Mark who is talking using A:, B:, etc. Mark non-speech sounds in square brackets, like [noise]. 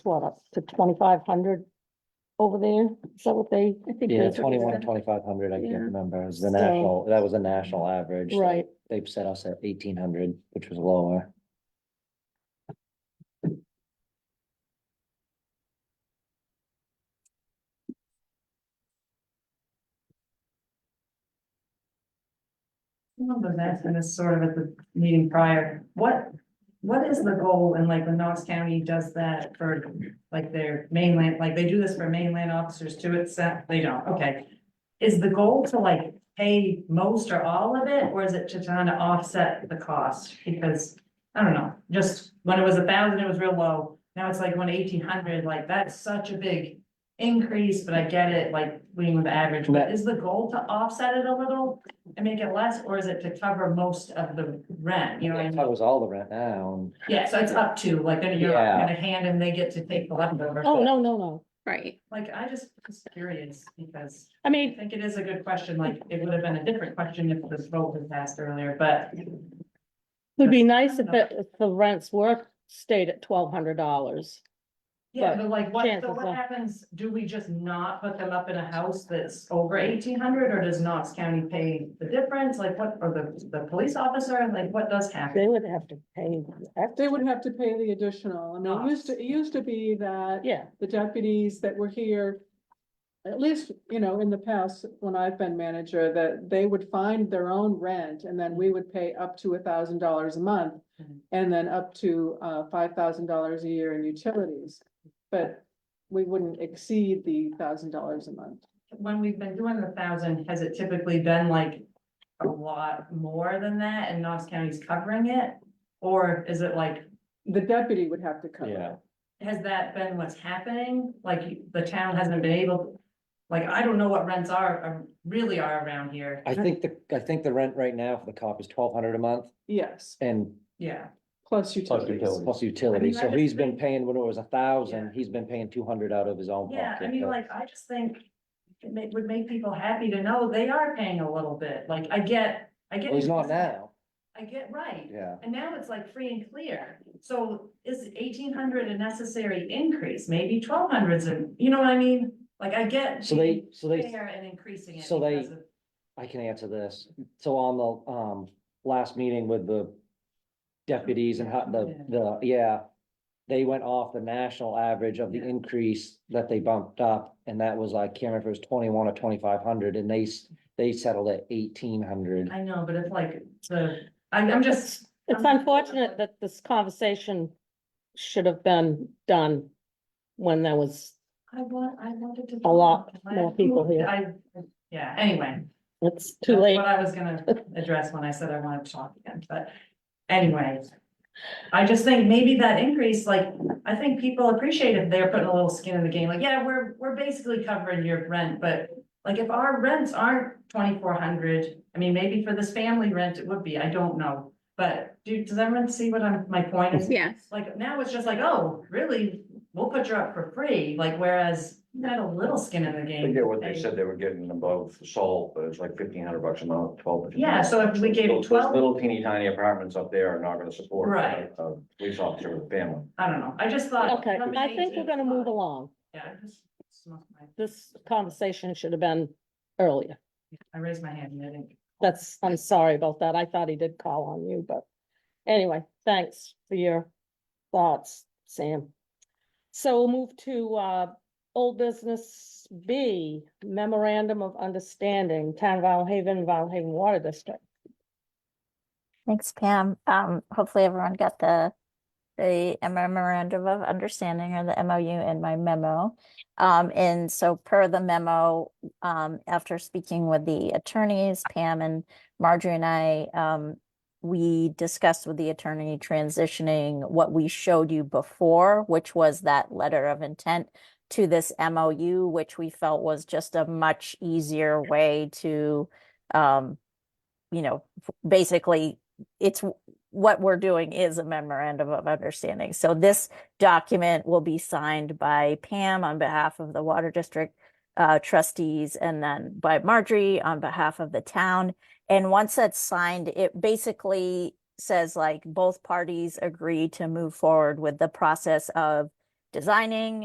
A: what, up to twenty-five hundred over there? Is that what they?
B: I think
C: Yeah,
B: that's what they
C: twenty-one,
B: said.
C: twenty-five hundred, I
B: Yeah.
C: can't remember, it was the
A: So-
C: national, that was a national average.
A: Right,
C: They've set us at eighteen hundred, which was lower.
D: One was asking this sort of at the meeting prior, what, what is the goal and like when Knox County does that for like their mainland, like they do this for mainland officers too, it's, that- they don't, okay. Is the goal to like pay most or all of it, or is it to try to offset the cost? Because, I don't know, just when it was a thousand, it was real low, now it's like one eighteen hundred, like that's such a big increase, but I get it, like leading with the average, but
C: That-
D: is the goal to offset it a little? and make it less, or is it to cover most of the rent, you know what I
C: That
D: mean?
C: was all the rent now.
D: Yeah, so it's up to, like, then you're
C: Yeah.
D: gonna hand and they get to take the leftover.
A: oh, no, no, no,
B: Right,
D: Like, I just was curious, because
A: I
D: I
A: mean,
D: think it is a good question, like, it would have been a different question if this vote was passed earlier, but.
A: it'd be nice if it, if the rents were stayed at twelve hundred dollars.
D: Yeah,
A: But
D: but like, what, so
A: chances are-
D: what happens, do we just not put them up in a house that's over eighteen hundred, or does Knox County pay the difference, like, what, or the, the police officer, like, what does happen?
A: They would have to pay,
E: They
A: extra.
E: would have to pay the additional. I mean, it used to, it used to be that
A: yeah,
E: the deputies that were here. At least, you know, in the past, when I've been manager, that they would find their own rent and then we would pay up to a thousand dollars a month.
D: Mhm.
E: And then up to uh five thousand dollars a year in utilities, but we wouldn't exceed the thousand dollars a month.
D: when we've been doing the thousand, has it typically been like a lot more than that and Knox County's covering it? Or is it like,
E: The deputy would have to cover
C: Yeah.
E: it.
D: has that been what's happening? Like the town hasn't been able, like, I don't know what rents are, are- really are around here.
C: I think the, I think the rent right now for the cop is twelve hundred a month
E: Yes,
C: and
D: Yeah,
E: plus utilities.
C: plus utilities.
D: I
C: so
D: just
C: he's been
D: think-
C: paying, when it was a thousand,
D: Yeah.
C: he's been paying two hundred out of his own
D: yeah, I
C: pocket.
D: mean,
C: but-
D: like, I just think it ma- would make people happy to know they are paying a little bit. Like, I get, I get.
C: Well, he's not now,
D: I get, right.
C: yeah.
D: And now it's like free and clear. So is eighteen hundred a necessary increase? Maybe twelve hundreds and, you know what I mean? Like I get.
C: So they, so
D: being
C: they,
D: fair And increasing it.
C: so they-
D: because of-
C: I can answer this. So on the, um, last meeting with the deputies and how the, the, yeah. They went off the national average of the
D: Yeah.
C: increase that they bumped up, and that was like, can't remember if it was twenty-one or twenty-five hundred, and they, s- they settled at eighteen hundred.
D: I know, but it's like the, I'm, I'm just.
A: it's unfortunate that this conversation should have been done when there was,
D: I want, I wanted to.
A: A lot
D: I-
A: more people here.
D: I, yeah, anyway.
A: it's too
D: that's
A: late.
D: What I was
A: [laughs]
D: gonna address when I said I wanted to talk again, but anyway. I just think maybe that increase, like, I think people appreciate if they're putting a little skin in the game, like, yeah, we're, we're basically covering your rent, but. Like, if our rents aren't twenty-four hundred, I mean, maybe for this family rent, it would be, I don't know. But do, does everyone see what I'm, my point is?
B: yes.
D: Like, now it's just like, oh, really, we'll put you up for free, like, whereas you had a little skin in the game.
F: They get what they said they were getting above salt, but it's like fifteen hundred bucks a month, twelve. to 15.
D: Yeah, so if we gave
F: Those- those
D: 12
F: Little teeny tiny apartments up there are not gonna support. a-
D: Right.
F: A police officer with a family.
D: I don't know, I just thought.
A: Okay, I think we're gonna move along.
D: Yeah, I just smoked my,
A: This conversation should have been earlier.
D: I raised my hand and I didn't.
A: That's, I'm sorry about that. I thought he did call on you, but anyway, thanks for your thoughts, Sam. So we'll move to uh, old business B, memorandum of understanding, Town of Isle Haven, Isle Haven Water District.
G: Thanks, Pam. Um, hopefully everyone got the, the memorandum of understanding or the MOU in my memo. Um, and so per the memo, um, after speaking with the attorneys, Pam and Marjorie and I, um, we discussed with the attorney transitioning what we showed you before, which was that letter of intent to this MOU, which we felt was just a much easier way to, um, you know, basically it's w- what we're doing is a memorandum of understanding. So this document will be signed by Pam on behalf of the water district uh, trustees and then by Marjorie on behalf of the town. And once that's signed, it basically says like both parties agree to move forward with the process of designing